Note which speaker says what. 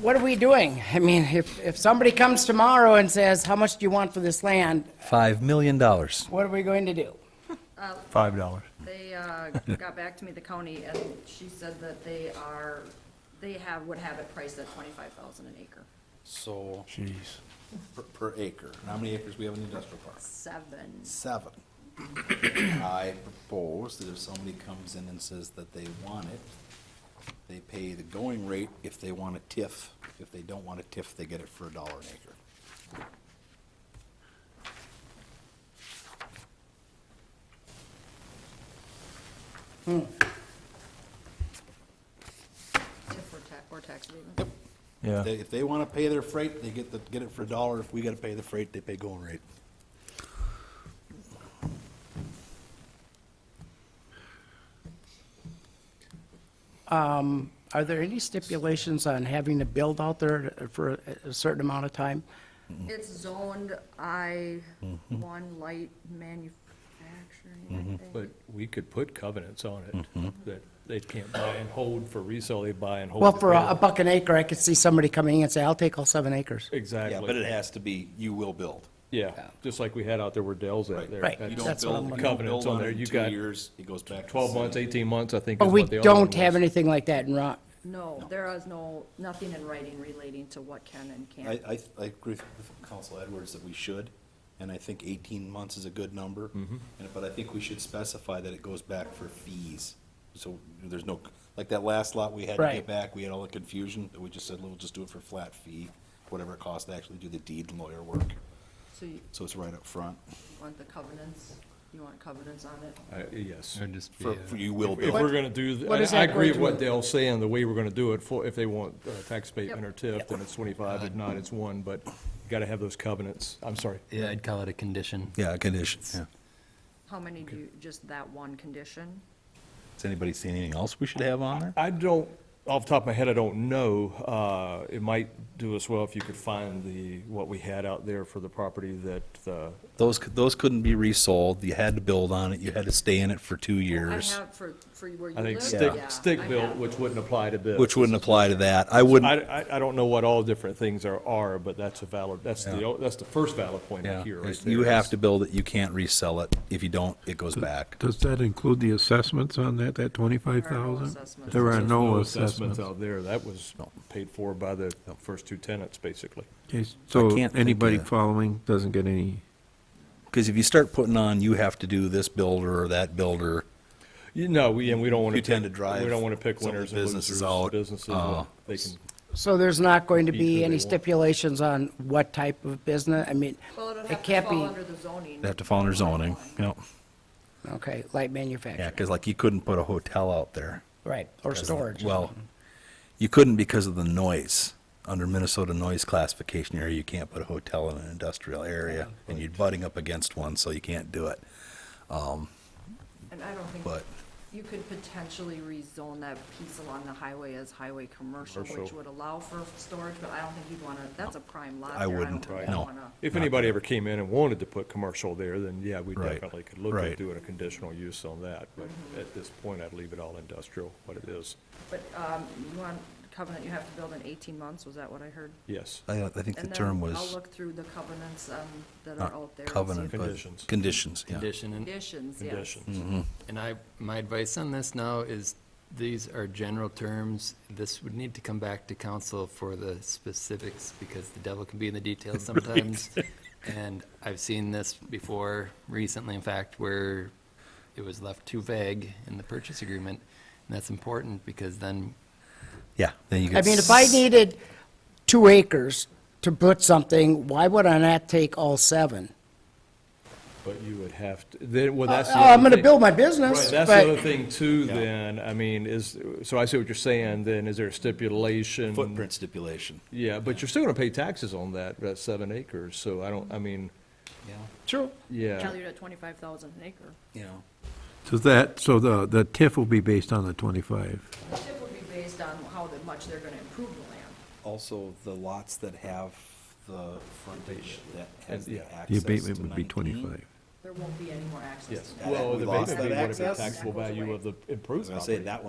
Speaker 1: What are we doing? I mean, if, if somebody comes tomorrow and says, how much do you want for this land?
Speaker 2: $5 million.
Speaker 1: What are we going to do?
Speaker 3: Five dollars.
Speaker 4: They uh, got back to me, the county, and she said that they are, they have, would have it priced at twenty-five thousand an acre.
Speaker 5: So,
Speaker 3: Jeez.
Speaker 5: per- per acre, And how many acres we have in the industrial park?
Speaker 4: Seven.
Speaker 5: Seven. I propose that if somebody comes in and says that they want it, they pay the going rate if they want a TIF. If they don't want a TIF, they get it for a dollar an acre.
Speaker 4: If we're ta- or tax abatement.
Speaker 3: Yeah.
Speaker 5: They- If they want to pay their freight, they get the, get it for a dollar. If we got to pay the freight, they pay going rate.
Speaker 1: Are there any stipulations on having to build out there for a certain amount of time?
Speaker 4: It's zoned I one light manufacturing, I think.
Speaker 6: Mm-hmm. But we could put covenants on
Speaker 5: Mm-hmm.
Speaker 6: it, that they can't buy and hold for resale, they buy and hold.
Speaker 1: Well,
Speaker 6: to
Speaker 1: for a a
Speaker 6: build.
Speaker 1: buck an acre, I could see somebody coming in and say, I'll take all seven acres.
Speaker 5: Yeah, but it
Speaker 6: Exactly,
Speaker 5: has to be, you will build.
Speaker 6: yeah, just like we had out there where Dell's at there.
Speaker 1: Right.
Speaker 6: That's
Speaker 5: You
Speaker 1: Right.
Speaker 5: don't
Speaker 1: That's what
Speaker 5: build-
Speaker 1: I'm
Speaker 5: you don't
Speaker 6: Covenants
Speaker 5: build
Speaker 6: on there,
Speaker 5: it in
Speaker 6: you
Speaker 5: two
Speaker 6: got
Speaker 5: yeese, it goes back to
Speaker 6: Twelve
Speaker 5: the
Speaker 6: months,
Speaker 5: city.
Speaker 6: eighteen months, I think
Speaker 1: But
Speaker 6: is
Speaker 1: we
Speaker 6: what the other one
Speaker 1: don't have
Speaker 6: was.
Speaker 1: anything like that in Rock.
Speaker 4: No, there is no, nothing in writing relating to what can and
Speaker 5: I,
Speaker 4: can't.
Speaker 5: I, I agree with Council Edwards that we should, and I think eighteen months is a good number. And, but I think we should specify that it goes back for fees, so there's no, like that last lot we had to
Speaker 1: Right.
Speaker 5: get back, we had all the confusion, but we just said, we'll just do it for flat fee, whatever it costs to actually do the deed and lawyer work,
Speaker 4: So you
Speaker 5: so it's right up front,
Speaker 4: want the covenants, you want covenants on it?
Speaker 6: I- Yes.
Speaker 5: for, for you will
Speaker 6: If
Speaker 5: build.
Speaker 6: we're gonna do, th-
Speaker 1: what is
Speaker 6: I I
Speaker 1: that
Speaker 6: agree
Speaker 1: going
Speaker 6: with
Speaker 1: to-
Speaker 6: what Dell's saying, the way we're gonna do it, for, if they want uh, tax abatement or TIF, then it's twenty-five, if not, it's one, but gotta have those covenants, I'm sorry.
Speaker 7: Yeah, I'd call it a condition.
Speaker 2: Yeah, conditions.
Speaker 4: How many do you, just that one condition?
Speaker 5: Does anybody see anything else we should have on there?
Speaker 6: I don't, off the top of my head, I don't know. Uh, It might do us well if you could find the, what we had out there for the property that, uh,
Speaker 5: Those, c- those couldn't be resold, you had to build on it, you had to stay in it for two
Speaker 4: I
Speaker 5: years.
Speaker 4: have for, for where you
Speaker 6: I think
Speaker 4: live?
Speaker 6: stick,
Speaker 4: Yeah, I
Speaker 6: stick built,
Speaker 4: have.
Speaker 6: which wouldn't apply to this.
Speaker 5: Which wouldn't apply to that. I wouldn't.
Speaker 6: I, I, I don't know what all different things are, are, but that's a valid, that's the, o- that's the first valid point
Speaker 5: Yeah,
Speaker 6: here, right
Speaker 5: it's-
Speaker 6: there.
Speaker 5: you have to build it, you can't resell it. If you don't, it goes back.
Speaker 8: Does that include the assessments on that, that twenty-five
Speaker 4: There are no
Speaker 8: thousand?
Speaker 4: assessments.
Speaker 8: There are
Speaker 6: There's
Speaker 8: no assessments.
Speaker 6: Out there, that was paid for by the first two tenants, basically.
Speaker 8: Okay,
Speaker 5: I
Speaker 8: So
Speaker 5: can't think
Speaker 8: anybody
Speaker 5: of-
Speaker 8: following doesn't get any,
Speaker 5: Because if you start putting on, you have to do this builder or that builder.
Speaker 6: You know, we, and we don't want to.
Speaker 5: You tend to drive
Speaker 6: We don't want to pick
Speaker 5: some of the
Speaker 6: winners and losers.
Speaker 5: businesses out,
Speaker 6: Businesses,
Speaker 5: uh,
Speaker 6: uh, they can.
Speaker 1: So there's not going to
Speaker 6: Be who
Speaker 1: be
Speaker 6: they
Speaker 1: any
Speaker 6: want.
Speaker 1: stipulations on what type of business? I mean,
Speaker 4: Well, it'll
Speaker 1: it
Speaker 4: have to
Speaker 1: can't
Speaker 4: fall
Speaker 1: be,
Speaker 4: under the zoning.
Speaker 5: They have to follow their zoning. Yep.
Speaker 1: okay, light
Speaker 5: Yeah,
Speaker 1: manufacturing,
Speaker 5: because like you couldn't put a hotel out there.
Speaker 1: right, or
Speaker 5: 'Cause-
Speaker 1: storage.
Speaker 5: Well, you couldn't because of the noise. Under Minnesota noise classification area, you can't put a hotel in an industrial area, and you're butting up against one, so you can't do it.
Speaker 4: And I don't think,
Speaker 5: But-
Speaker 4: you could potentially rezone that piece along the highway as highway commercial, which
Speaker 6: Commercial.
Speaker 4: would allow for storage, but I don't think you'd want to, that's a prime lot
Speaker 5: I
Speaker 4: there. don't
Speaker 5: wouldn't,
Speaker 4: think you'd
Speaker 5: no.
Speaker 4: wanna-
Speaker 6: If anybody ever came in and wanted to put commercial there, then yeah, we
Speaker 5: Right,
Speaker 6: definitely could look
Speaker 5: right.
Speaker 6: at doing a conditional use on that. But
Speaker 1: Mm-hmm.
Speaker 6: at this point, I'd leave it all industrial, what it is.
Speaker 4: But um, you want covenant, you have to build in 18 months, was that what I heard?
Speaker 6: Yes.
Speaker 5: I, I think the
Speaker 4: And then
Speaker 5: term
Speaker 4: I'll
Speaker 5: was
Speaker 4: look through the covenants um, that are
Speaker 5: not
Speaker 4: out there. and see
Speaker 5: covenant,
Speaker 4: if-
Speaker 5: but
Speaker 6: Conditions.
Speaker 5: conditions, yeah.
Speaker 7: Condition, and,
Speaker 4: Conditions, yes.
Speaker 6: Conditions.
Speaker 5: Mm-hmm.
Speaker 7: and I, my advice on this now is, these are general terms. This would need to come back to council for the specifics, because the devil can be in the details sometimes. And I've seen this before recently, in fact, where it was left too vague in the purchase agreement. And that's important, because then
Speaker 5: Yeah, then you
Speaker 1: I
Speaker 5: could
Speaker 1: mean, if I needed two acres to put something, why would I not take all seven?
Speaker 6: But you would have, to. then, well,
Speaker 1: Oh,
Speaker 6: that's. the
Speaker 1: I'm
Speaker 6: other
Speaker 1: gonna
Speaker 6: thing.
Speaker 1: build my business,
Speaker 6: Right, that's the other
Speaker 1: but,
Speaker 6: thing too, then, I mean, is, so I see what you're saying, then, is there a stipulation?
Speaker 5: footprint stipulation.
Speaker 6: Yeah, but you're still gonna pay taxes on that, that seven acres, so I don't, I mean,
Speaker 1: true,
Speaker 6: yeah.
Speaker 4: Valued at 25,000 an acre.
Speaker 5: You know.
Speaker 8: does that, so the, the TIF will be based on the twenty-five?
Speaker 4: The tip would be based on how that much they're going to improve the land.
Speaker 5: Also, the lots that have the frontage that has the
Speaker 6: Yeah.
Speaker 5: access
Speaker 8: The abatement
Speaker 5: to
Speaker 8: would be
Speaker 5: 19.
Speaker 8: twenty-five.
Speaker 4: There won't be any more access to
Speaker 6: Yes,
Speaker 4: that.
Speaker 5: Well,
Speaker 6: well,
Speaker 5: we
Speaker 6: the
Speaker 5: lost
Speaker 6: abatement
Speaker 5: that
Speaker 6: would be
Speaker 5: access.
Speaker 6: taxable
Speaker 4: That goes
Speaker 6: value
Speaker 4: away.
Speaker 6: of the
Speaker 5: I was
Speaker 6: improved
Speaker 5: gonna say,
Speaker 6: property.
Speaker 5: that